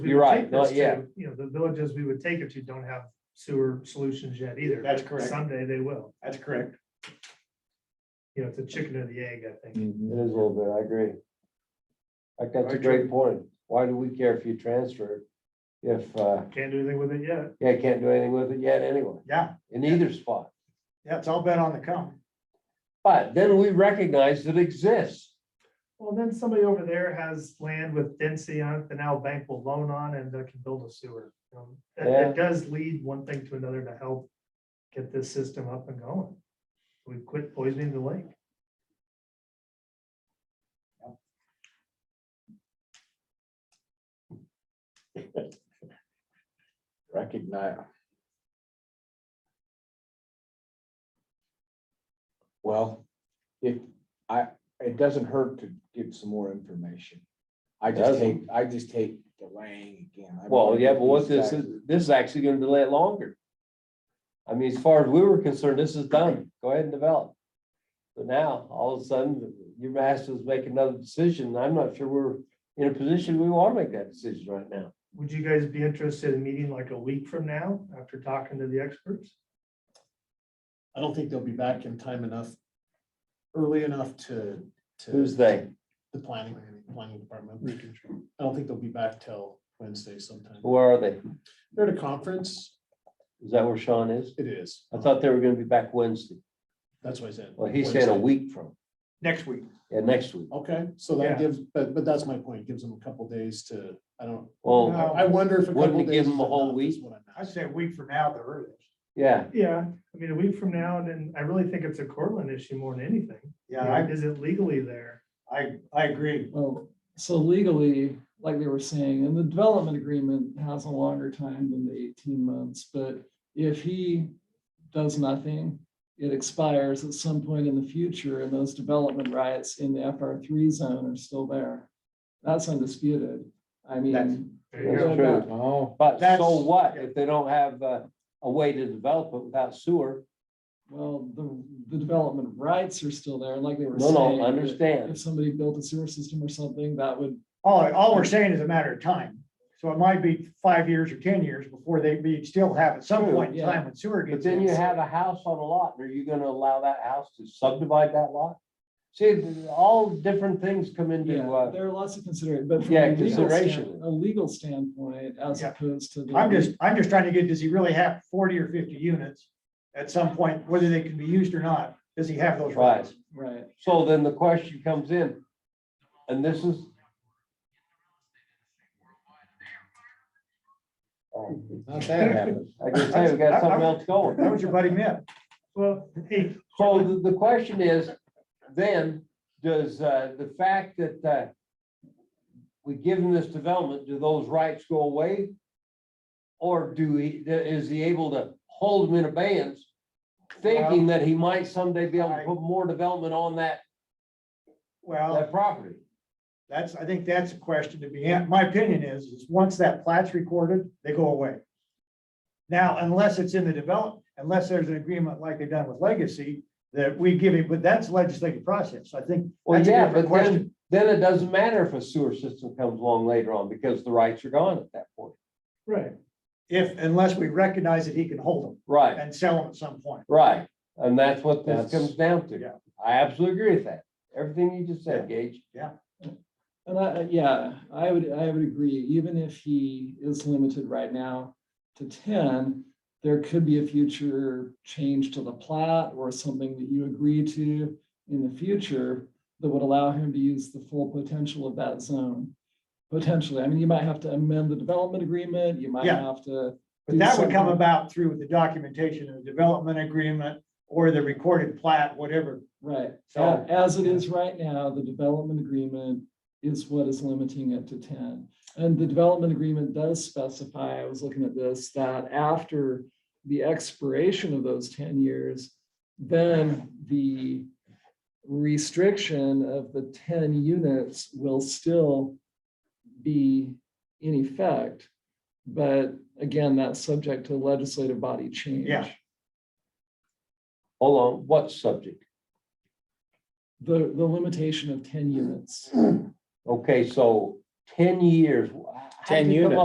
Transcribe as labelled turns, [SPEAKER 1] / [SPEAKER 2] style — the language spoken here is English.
[SPEAKER 1] we
[SPEAKER 2] You're
[SPEAKER 1] would
[SPEAKER 2] right.
[SPEAKER 1] take this
[SPEAKER 2] No, yeah.
[SPEAKER 1] to, You know, the villages we would take it to don't have sewer solutions yet either.
[SPEAKER 3] That's
[SPEAKER 1] but
[SPEAKER 3] correct.
[SPEAKER 1] Someday they will.
[SPEAKER 3] That's correct.
[SPEAKER 1] You know, it's a chicken and the egg, I think.
[SPEAKER 2] It is a little bit, I agree. Like, that's a
[SPEAKER 3] Alright,
[SPEAKER 2] great point. Why do we care if you transfer? If, uh,
[SPEAKER 1] Can't do anything with it yet.
[SPEAKER 2] yeah, can't do anything with it yet anyway,
[SPEAKER 3] Yeah,
[SPEAKER 2] in either spot.
[SPEAKER 3] yeah, it's all been on the come.
[SPEAKER 2] But then we recognize it exists.
[SPEAKER 1] Well, then somebody over there has land with density on it, the now bank will loan on and they can build a sewer. Um, That, that does lead one thing to another to help get this system up and going. We quit poisoning the lake.
[SPEAKER 4] recognize. Well, if, I, it doesn't hurt to get some more information. I just
[SPEAKER 2] Doesn't.
[SPEAKER 4] hate, I just hate delaying again. I
[SPEAKER 2] Well,
[SPEAKER 4] don't
[SPEAKER 2] yeah, but what
[SPEAKER 4] like
[SPEAKER 2] this
[SPEAKER 4] these
[SPEAKER 2] is, this is actually gonna delay it longer. I mean, as far as we were concerned, this is done. Go ahead and develop. But now, all of a sudden, you're asking us to make another decision. I'm not sure we're in a position we wanna make that decision right now.
[SPEAKER 1] Would you guys be interested in meeting like a week from now after talking to the experts?
[SPEAKER 5] I don't think they'll be back in time enough, early enough to. to-
[SPEAKER 2] Who's they?
[SPEAKER 5] The planning, planning department. I don't think they'll be back till Wednesday sometime.
[SPEAKER 2] Who are they?
[SPEAKER 5] They're at a conference.
[SPEAKER 2] Is that where Sean is?
[SPEAKER 5] It is.
[SPEAKER 2] I thought they were gonna be back Wednesday.
[SPEAKER 5] That's what I said.
[SPEAKER 2] Well, he said a
[SPEAKER 5] Wednesday.
[SPEAKER 2] week from,
[SPEAKER 3] Next week.
[SPEAKER 2] yeah, next week.
[SPEAKER 5] Okay, so
[SPEAKER 1] Yeah.
[SPEAKER 5] that gives, but, but that's my point. Gives them a couple days to, I don't, I
[SPEAKER 2] Well,
[SPEAKER 3] No.
[SPEAKER 5] I wonder if. a
[SPEAKER 2] Wouldn't
[SPEAKER 5] couple
[SPEAKER 2] it give
[SPEAKER 5] days
[SPEAKER 2] them a
[SPEAKER 5] is
[SPEAKER 2] whole
[SPEAKER 5] enough, is
[SPEAKER 2] week?
[SPEAKER 5] what I'm
[SPEAKER 3] I
[SPEAKER 5] asking.
[SPEAKER 3] said a week from now, the earliest.
[SPEAKER 2] yeah,
[SPEAKER 1] Yeah, I mean, a week from now, and then I really think it's a Cortland issue more than anything.
[SPEAKER 3] Yeah, I,
[SPEAKER 1] Is it legally there?
[SPEAKER 3] I, I agree.
[SPEAKER 6] Well, so legally, like they were saying, and the development agreement has a longer time than the eighteen months, but if he does nothing, it expires at some point in the future and those development rights in the FR three zone are still there. That's undisputed. I
[SPEAKER 3] That's-
[SPEAKER 6] mean,
[SPEAKER 1] There you
[SPEAKER 2] that's
[SPEAKER 1] go.
[SPEAKER 6] Yeah.
[SPEAKER 2] true.
[SPEAKER 4] guys. Oh,
[SPEAKER 2] But so
[SPEAKER 3] That's-
[SPEAKER 2] what if they don't have uh, a way to develop it without sewer?
[SPEAKER 6] well, the, the development rights are still there, like they were
[SPEAKER 2] No, no,
[SPEAKER 6] saying. that
[SPEAKER 2] understand.
[SPEAKER 6] If somebody built a sewer system or something, that would
[SPEAKER 3] All, all we're saying is a matter of time. So it might be five years or ten years before they, be still have at some
[SPEAKER 2] True,
[SPEAKER 3] point in
[SPEAKER 6] yeah.
[SPEAKER 3] time when sewer
[SPEAKER 2] But
[SPEAKER 3] gets.
[SPEAKER 2] then you
[SPEAKER 3] in.
[SPEAKER 2] have a house on a lot, and are you gonna allow that house to subdivide that lot? See, th- all different things come into,
[SPEAKER 6] Yeah,
[SPEAKER 2] uh,
[SPEAKER 6] there are lots of consider, but. from
[SPEAKER 2] Yeah,
[SPEAKER 6] a legal
[SPEAKER 2] consideration.
[SPEAKER 6] stand- A legal standpoint as
[SPEAKER 3] Yeah.
[SPEAKER 6] opposed to. the-
[SPEAKER 3] I'm just, I'm just trying to get, does he really have forty or fifty units at some point, whether they can be used or not? Does he have those
[SPEAKER 2] Right.
[SPEAKER 3] rights?
[SPEAKER 6] Right,
[SPEAKER 2] so then the question comes in. And this is.
[SPEAKER 4] Not that happened.
[SPEAKER 2] I can tell you, we got something else going.
[SPEAKER 3] That was your buddy Mitt.
[SPEAKER 1] Well, hey,
[SPEAKER 2] So the, the question is, then, does, uh, the fact that, uh, we give him this development, do those rights go away? Or do he, is he able to hold them in abeyance, thinking that he might someday be able to put more development on that,
[SPEAKER 3] Well.
[SPEAKER 2] that property?
[SPEAKER 3] That's, I think that's a question to be, an- my opinion is, is once that plat's recorded, they go away. Now, unless it's in the develop, unless there's an agreement like they've done with Legacy, that we give it, but that's legislative process, I think.
[SPEAKER 2] Well,
[SPEAKER 3] that's a
[SPEAKER 2] yeah,
[SPEAKER 3] different
[SPEAKER 2] but
[SPEAKER 3] question.
[SPEAKER 2] then, then it doesn't matter if a sewer system comes along later on, because the rights are gone at that point.
[SPEAKER 1] right,
[SPEAKER 3] If, unless we recognize that he can hold them
[SPEAKER 2] Right,
[SPEAKER 3] and sell them at some point.
[SPEAKER 2] right, and that's what this
[SPEAKER 4] That's-
[SPEAKER 2] comes down to.
[SPEAKER 3] Yeah.
[SPEAKER 2] I absolutely agree with that, everything you just said, Gage.
[SPEAKER 6] and I, yeah, I would, I would agree, even if he is limited right now to ten, there could be a future change to the plat or something that you agree to in the future that would allow him to use the full potential of that zone. Potentially, I mean, you might have to amend the development agreement, you might
[SPEAKER 3] Yeah.
[SPEAKER 6] have to.
[SPEAKER 3] But
[SPEAKER 6] do
[SPEAKER 3] that would come
[SPEAKER 6] something.
[SPEAKER 3] about through the documentation and the development agreement or the recorded plat, whatever.
[SPEAKER 6] Right,
[SPEAKER 3] So-
[SPEAKER 6] A- as it is right now, the development agreement is what is limiting it to ten. And the development agreement does specify, I was looking at this, that after the expiration of those ten years, then the restriction of the ten units will still be in effect. But again, that's subject to legislative body change.
[SPEAKER 3] Yeah.
[SPEAKER 2] Hold on, what subject?
[SPEAKER 6] The, the limitation of ten units.
[SPEAKER 2] Okay, so ten years. How'd
[SPEAKER 4] 10
[SPEAKER 2] you come
[SPEAKER 4] units.